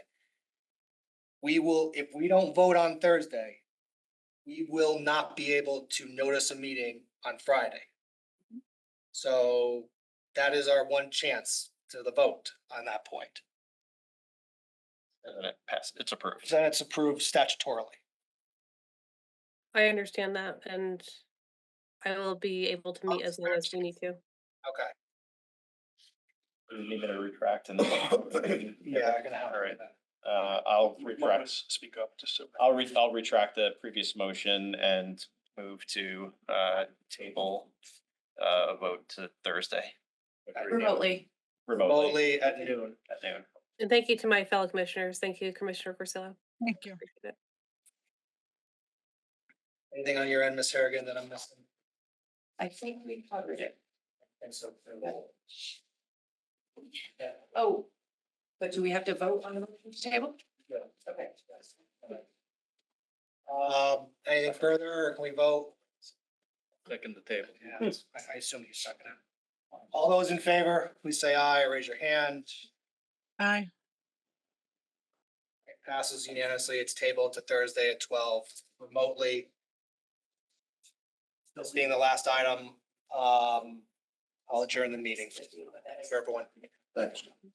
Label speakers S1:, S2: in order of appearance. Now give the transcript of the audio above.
S1: we will, if we don't vote on Thursday, we will not be able to notice a meeting on Friday.
S2: Mm-hmm.
S1: So that is our one chance to the vote on that point.
S3: And then it passes, it's approved.
S1: Then it's approved statutorily.
S4: I understand that and I will be able to meet as long as we need to.
S1: Okay.
S3: We Need me to retract and. then-
S1: Yeah, I'm gonna have.
S3: All right. Uh, I'll retract,
S1: Speak up just so.
S3: I'll re, I'll retract the previous motion and move to, uh, table, uh, a vote to Thursday.
S2: remotely.
S3: Remotely
S1: Remotely at noon.
S3: at noon.
S4: And thank you to my fellow commissioners. Thank you, Commissioner Porcello.
S5: Thank you.
S4: Appreciate it.
S1: Anything on your end, Ms. Harrigan, that I'm missing?
S2: I think we covered it.
S1: And so.
S2: Oh, but do we have to vote on the motion table?
S1: Yeah.
S2: Okay.
S1: Um, anything further, or can we vote?
S6: Second the table.
S1: Yeah, I, I assume he's second. All those in favor, please say aye, or raise your hand.
S5: Aye.
S1: It passes unanimously. It's tabled to Thursday at twelve remotely. This being the last item, um, I'll adjourn the meeting. For everyone.